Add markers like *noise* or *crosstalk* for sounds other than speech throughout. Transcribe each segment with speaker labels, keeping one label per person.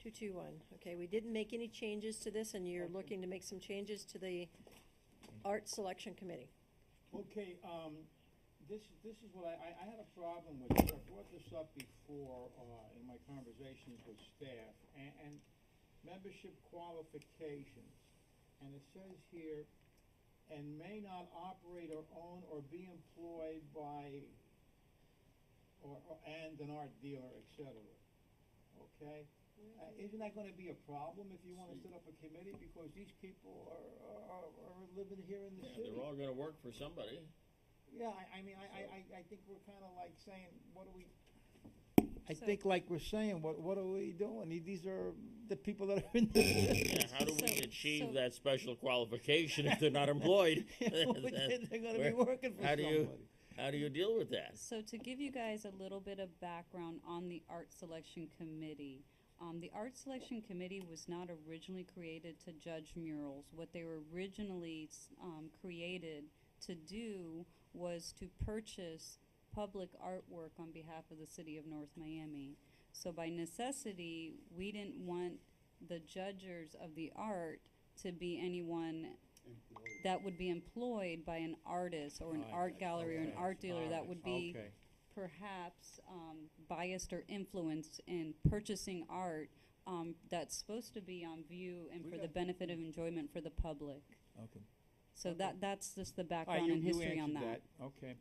Speaker 1: Two-two-one, okay, we didn't make any changes to this, and you're looking to make some changes to the art selection committee.
Speaker 2: Okay, um, this, this is what I, I, I had a problem with, this. I brought this up before, uh, in my conversations with staff, and, and membership qualifications. And it says here, and may not operate or own or be employed by, or, or- and an art dealer, et cetera. Okay? Uh, isn't that gonna be a problem if you wanna set up a committee, because these people are, are, are living here in the
Speaker 3: Yeah,
Speaker 2: city?
Speaker 3: they're all gonna work for somebody.
Speaker 2: Yeah, I, I mean, I, I,
Speaker 3: So-
Speaker 2: I, I think we're kinda like saying, what are we? I
Speaker 1: So-
Speaker 2: think like we're saying, what, what are we doing? The- These are the people that are in the. *laughs*
Speaker 3: *laughs* Yeah, how do we
Speaker 1: So- so-
Speaker 3: achieve that special qualification if they're not employed?
Speaker 2: They're gonna be
Speaker 3: Where-
Speaker 2: working for
Speaker 3: how do you-
Speaker 2: somebody.
Speaker 3: How do you deal with that?
Speaker 4: So to give you guys a little bit of background on the art selection committee, um, the art selection committee was not originally created to judge murals. What they were originally, s- um, created to do was to purchase public artwork on behalf of the city of North Miami. So by necessity, we didn't want the judges of the art to be anyone that would be employed by an artist or an
Speaker 2: Right,
Speaker 4: art gallery or an
Speaker 2: okay,
Speaker 4: art dealer
Speaker 3: Oh,
Speaker 4: that
Speaker 2: alright,
Speaker 4: would be
Speaker 2: okay.
Speaker 4: perhaps um, biased or influenced in purchasing art um, that's supposed to be on view and
Speaker 2: We
Speaker 4: for the
Speaker 2: got-
Speaker 4: benefit of enjoyment for the public.
Speaker 2: Okay.
Speaker 4: So
Speaker 2: Okay.
Speaker 4: that that's just the
Speaker 2: All right,
Speaker 4: background
Speaker 2: you,
Speaker 4: and
Speaker 2: you
Speaker 4: history on
Speaker 2: answered
Speaker 4: that.
Speaker 2: that, okay.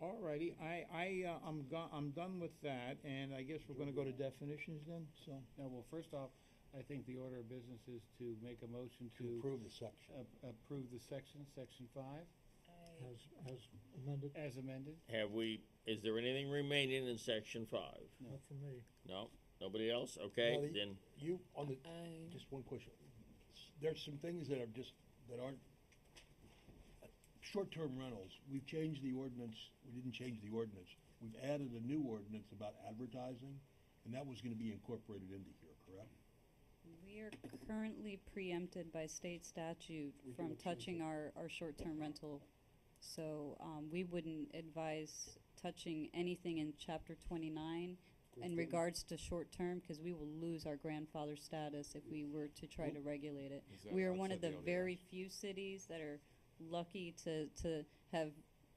Speaker 2: All righty, I, I, uh, I'm go, I'm done with that, and I guess we're gonna go to definitions then, so.
Speaker 5: No, well, first off, I think the order of business is to make a motion to
Speaker 6: approve the section.
Speaker 5: ap- approve the section, section five,
Speaker 6: As, as amended,
Speaker 5: as amended.
Speaker 3: Have we, is there anything remaining in section five?
Speaker 6: not for me.
Speaker 3: No? Nobody else? Okay,
Speaker 6: Well, the-
Speaker 3: then,
Speaker 6: You, on the, just one question. There's some things that are just, that aren't, short-term rentals, we've changed the ordinance, we didn't change the ordinance. We've added a new ordinance about advertising, and that was gonna be incorporated into here, correct?
Speaker 4: We are currently preempted by state statute
Speaker 6: We
Speaker 4: from
Speaker 6: cannot change
Speaker 4: touching
Speaker 6: it.
Speaker 4: our, our short-term rental. So um, we wouldn't advise touching anything in chapter twenty-nine in regards to short-term because we will lose our grandfather status if we were to try to regulate it. We are one of the very few cities that are lucky to, to have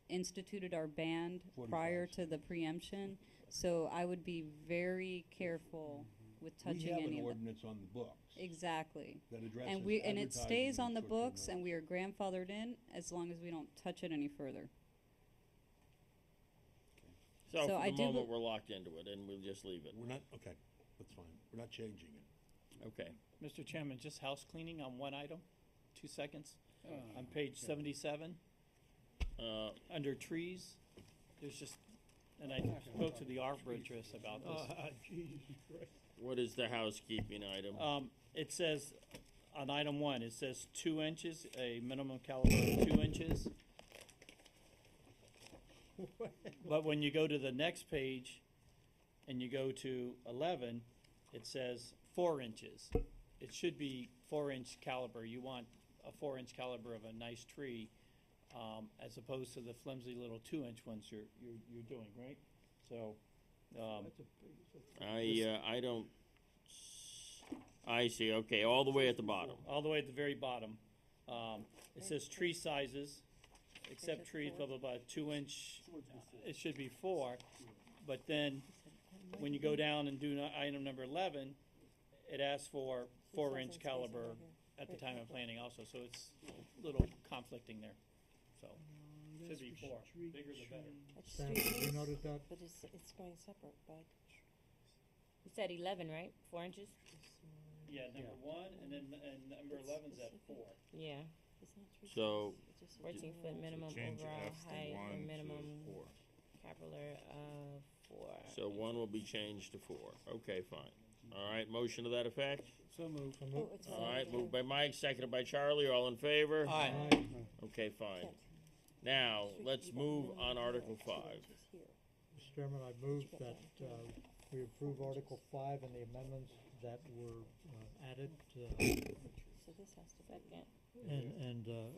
Speaker 4: instituted our ban
Speaker 6: 45
Speaker 4: prior to the preemption. So I would be very careful with
Speaker 6: Mm-hmm. We
Speaker 4: touching
Speaker 6: have
Speaker 4: any
Speaker 6: an
Speaker 4: of that.
Speaker 6: ordinance on the books
Speaker 4: Exactly.
Speaker 6: that addresses
Speaker 4: And we, and it stays
Speaker 6: advertising
Speaker 4: on the
Speaker 6: and short-term
Speaker 4: books and
Speaker 6: rentals.
Speaker 4: we are grandfathered in as long as we don't touch it any further.
Speaker 3: so
Speaker 4: So
Speaker 3: for
Speaker 4: I
Speaker 3: the
Speaker 4: do
Speaker 3: moment,
Speaker 4: be-
Speaker 3: we're locked into it and we'll just leave it.
Speaker 6: We're not, okay, that's fine, we're not changing it.
Speaker 3: Okay.
Speaker 7: Mr. Chairman, just house cleaning on one item, two seconds.
Speaker 5: Uh,
Speaker 7: On page seventy-seven,
Speaker 3: Uh,
Speaker 7: under trees, there's just, and I spoke to the arborist about
Speaker 2: *laughs*
Speaker 7: this.
Speaker 2: Oh,
Speaker 6: Ah, Jesus Christ.
Speaker 3: what is the housekeeping item?
Speaker 7: Um, it says, on item one, it says two inches, a minimum caliber of two inches. But when you go to the next page and you go to eleven, it says four inches. It should be four inch caliber. You want a four inch caliber of a nice tree, um, as opposed to the flimsy little two inch ones you're, you're, you're doing, right? So, um,
Speaker 2: That's a big- that's a-
Speaker 3: I, uh, I don't, s- I see, okay, all the way at the bottom.
Speaker 7: all the way at the very bottom. Um, it says tree sizes, except
Speaker 1: it's
Speaker 7: trees,
Speaker 1: four.
Speaker 7: blah, blah, blah, two inch, it should be four. But then, when you
Speaker 1: Mm-hmm.
Speaker 7: go down and do no- item number eleven, it asks for four inch caliber at the time of planting also, so it's a little conflicting there, so. Should be four, bigger the better.
Speaker 6: Sam, you noted that?
Speaker 1: But it's, it's going separate, but.
Speaker 8: You said eleven, right? Four inches?
Speaker 7: Yeah, number one, and then, and number
Speaker 1: It's
Speaker 7: eleven's at
Speaker 1: specific.
Speaker 7: four.
Speaker 8: Yeah,
Speaker 3: So-
Speaker 8: fourteen foot minimum
Speaker 9: change
Speaker 8: overall
Speaker 9: F to
Speaker 8: height
Speaker 9: one
Speaker 8: or
Speaker 9: to
Speaker 8: minimum
Speaker 9: four.
Speaker 8: capillary of uh, four.
Speaker 3: So one will be changed to four. Okay, fine. All right, motion to that effect?
Speaker 5: So moved.
Speaker 1: Oh, it's
Speaker 3: All right,
Speaker 1: one.
Speaker 3: moved by Mike, seconded by Charlie, all in favor?
Speaker 7: Aye.
Speaker 3: Okay, fine.
Speaker 1: Can't.
Speaker 3: Now,
Speaker 1: Street
Speaker 3: let's
Speaker 1: people,
Speaker 3: move
Speaker 1: minimum
Speaker 3: on
Speaker 1: height,
Speaker 3: Article
Speaker 1: two
Speaker 3: five.
Speaker 1: inches here.
Speaker 6: Mr. Chairman, I move that uh, we approve Article Five and the amendments that were uh, added, uh,
Speaker 1: So this has to be.
Speaker 8: Second.
Speaker 6: and, and uh,